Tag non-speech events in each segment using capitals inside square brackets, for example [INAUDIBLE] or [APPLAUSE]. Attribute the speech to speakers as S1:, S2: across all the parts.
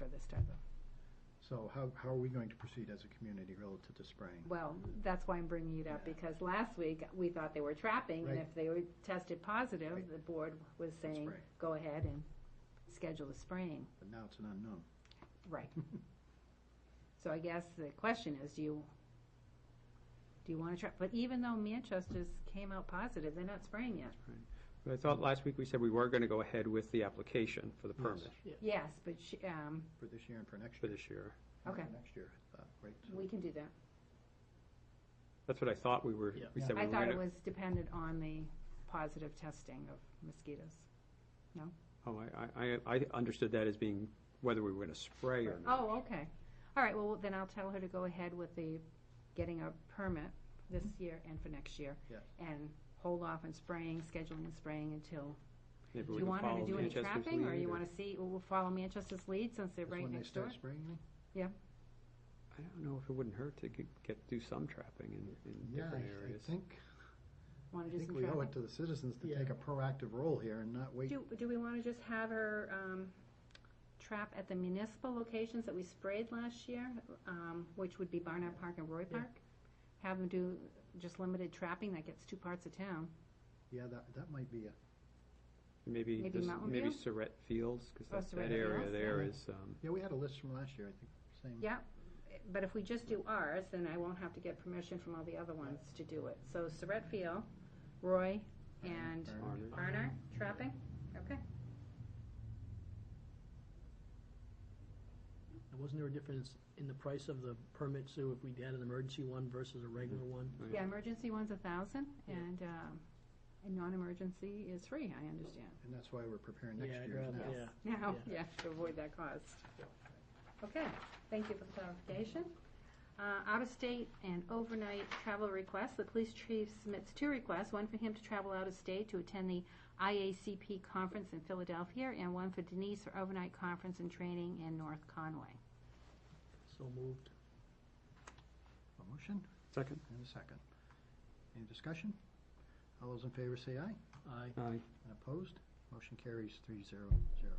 S1: start though.
S2: So how, how are we going to proceed as a community relative to spraying?
S1: Well, that's why I'm bringing it up,
S2: Yeah.
S1: because last week, we thought they were trapping, and
S2: Right.
S1: if they were tested positive,
S2: Right.
S1: the board was saying,
S2: spray.
S1: go ahead and schedule the spraying.
S2: But now it's an unknown.
S1: [LAUGHS] Right. So I guess the question is, do you, do you wanna try, but even though Manchester's came out positive, they're not spraying yet.
S3: But I thought last week we said we were going to go ahead with the application for the
S2: Yes.
S3: permit
S1: Yes, but she, um,
S2: For this year and for next
S3: for
S2: year.
S3: this year.
S2: and for
S1: Okay.
S2: Next year, I thought, right? So-
S1: we can do that.
S3: That's what I thought we were,
S2: Yeah.
S3: we said we
S1: I
S3: were
S1: thought
S3: going
S1: it
S3: to.
S1: was dependent on the positive testing of mosquitoes.
S3: Oh, I, I, I I understood that as being whether we were going to spray or not.
S1: Oh, okay. All right, well, then I'll tell her to go ahead with the, getting a permit this year and for next year.
S2: Yeah.
S1: And hold off on spraying, scheduling and spraying until
S3: Maybe
S1: Do
S3: we
S1: you
S3: can
S1: want her to
S3: follow
S1: do any
S3: Manchester's
S1: trapping, or
S3: lead
S1: you want to see, we'll follow Manchester's lead since they're
S2: That's
S1: right
S2: when they
S1: next door?
S2: start spraying then?
S3: I don't know if it wouldn't hurt to get, get- do some trapping in, in
S2: Yeah,
S3: different
S2: I- I
S3: areas.
S2: think,
S1: Want
S2: I
S1: to do
S2: think
S1: some
S2: we owe
S1: trapping?
S2: it to the citizens to
S4: Yeah.
S2: take a proactive role here and not wait.
S1: Do, do we want to just have her um, trap at the municipal locations that we sprayed last year, um, which would be Barnard Park and Roy
S4: Yeah.
S1: Park? Have them do just limited trapping that gets two parts of town.
S2: Yeah, that, that might be a,
S3: Maybe,
S1: maybe
S3: this-
S1: Mountain
S3: maybe
S1: View?
S3: Surratt Fields, because
S1: Oh,
S3: that,
S1: Surratt
S3: that area
S1: Fields,
S3: there
S2: yeah.
S3: is, um,
S2: yeah, we had a list from last year, I think, same.
S1: Yeah, but if we just do ours, then I won't have to get permission from all the other ones to do it. So Surratt Field, Roy, and
S2: Barnard.
S3: Barnard.
S1: Barnard, trapping, okay.
S4: And Wasn't there a difference in the price of the permit, Sue, if we had an emergency one versus a regular one?
S3: Oh,
S1: Yeah, emergency one's a thousand,
S4: Yeah.
S1: and, um, and non-emergency is free, I understand.
S2: And that's why we're preparing next
S4: Yeah, I'd
S2: year.
S4: rather-
S2: now.
S4: Yeah.
S1: Now,
S4: Yeah.
S1: yeah, to avoid that cost. Okay, thank you for the clarification. Uh, out-of-state and overnight travel requests, the police chief submits two requests, one for him to travel out-of-state to attend the IACP conference in Philadelphia, and one for Denise for overnight conference and training in North Conway.
S4: So moved.
S2: A motion
S3: Second?
S2: and a second. Any discussion? All those in favor say aye.
S4: Aye.
S3: Aye.
S2: And opposed? Motion carries three zero zero.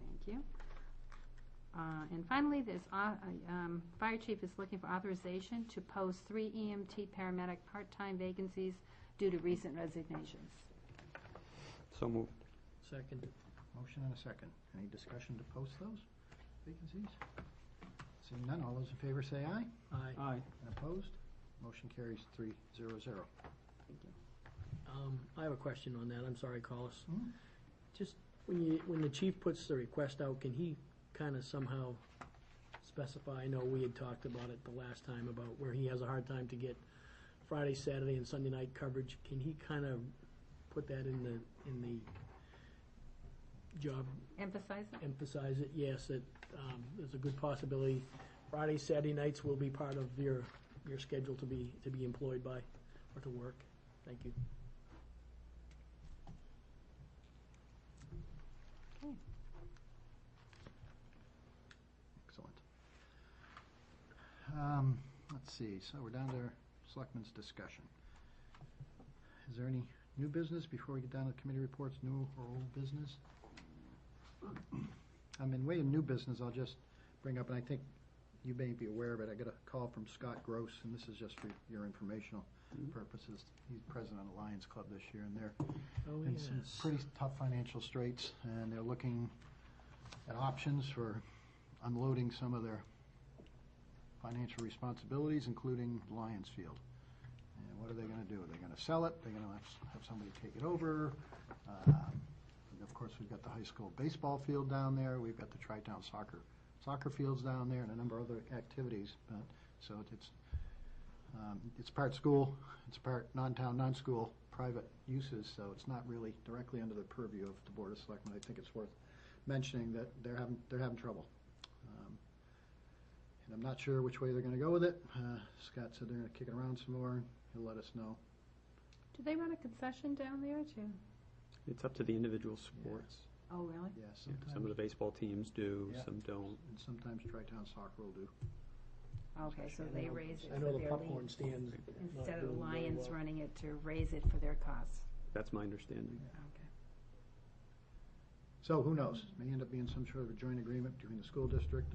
S1: Thank you. Uh, And finally, this, au- um, fire chief is looking for authorization to post three EMT paramedic part-time vacancies due to recent resignations.
S3: So moved.
S4: Second.
S2: Motion and a second. Any discussion to post those vacancies? Seeing none, all those in favor say aye.
S4: Aye.
S3: Aye.
S2: And opposed? Motion carries three zero zero.
S4: Um, I have a question on that. I'm sorry, Carlos.
S2: Hmm?
S4: Just, when you, when the chief puts the request out, can he kind of somehow specify? I know we had talked about it the last time about where he has a hard time to get Friday, Saturday, and Sunday night coverage. Can he kind of put that in the, in the job
S1: Emphasize that?
S4: emphasize it, yes, that um, there's a good possibility Friday, Saturday nights will be part of your, your schedule to be, to be employed by or to work. Thank you.
S2: Excellent. Um, Let's see, so we're down to Selectmen's discussion. Is there any new business before we get down to committee reports, new or old business? I mean, way in new business, I'll just bring up, and I think you may be aware of it, I got a call from Scott Gross, and this is just for your informational
S3: Mhm.
S2: purposes. He's president of Lions Club this year, and they're
S4: Oh,
S2: in some pretty tough financial straits, and they're looking at options for unloading some of their financial responsibilities, including Lions Field. And what are they gonna do? They're gonna sell it, they're gonna have- have somebody take it over. Um, and Of course, we've got the high school baseball field down there, we've got the tri-town soccer, soccer fields down there, and a number of other activities, but, so it's, um, it's part school, it's part non-town, non-school, private uses, so it's not really directly under the purview of the Board of Selectmen. I think it's worth mentioning that they're having, they're having trouble. Um, And I'm not sure which way they're gonna go with it. Uh, Scott said they're gonna kick it around some more, he'll let us know.
S1: Do they run a concession down there too?
S3: It's up to the individual sports.
S1: Oh, really?
S2: Yeah,
S3: Yeah, Some of the
S2: sometimes,
S3: baseball teams do,
S2: Yeah.
S3: some don't.
S2: and sometimes Tri-Town Soccer will do.
S1: Okay, so they raise it
S4: I
S1: for
S4: know the
S1: their
S4: popcorn
S1: league.
S4: stands.
S1: Instead of the Lions running it to raise it for their cause.
S3: That's my understanding.
S1: Okay.
S2: So who knows? May end up being some sort of a joint agreement between the school district and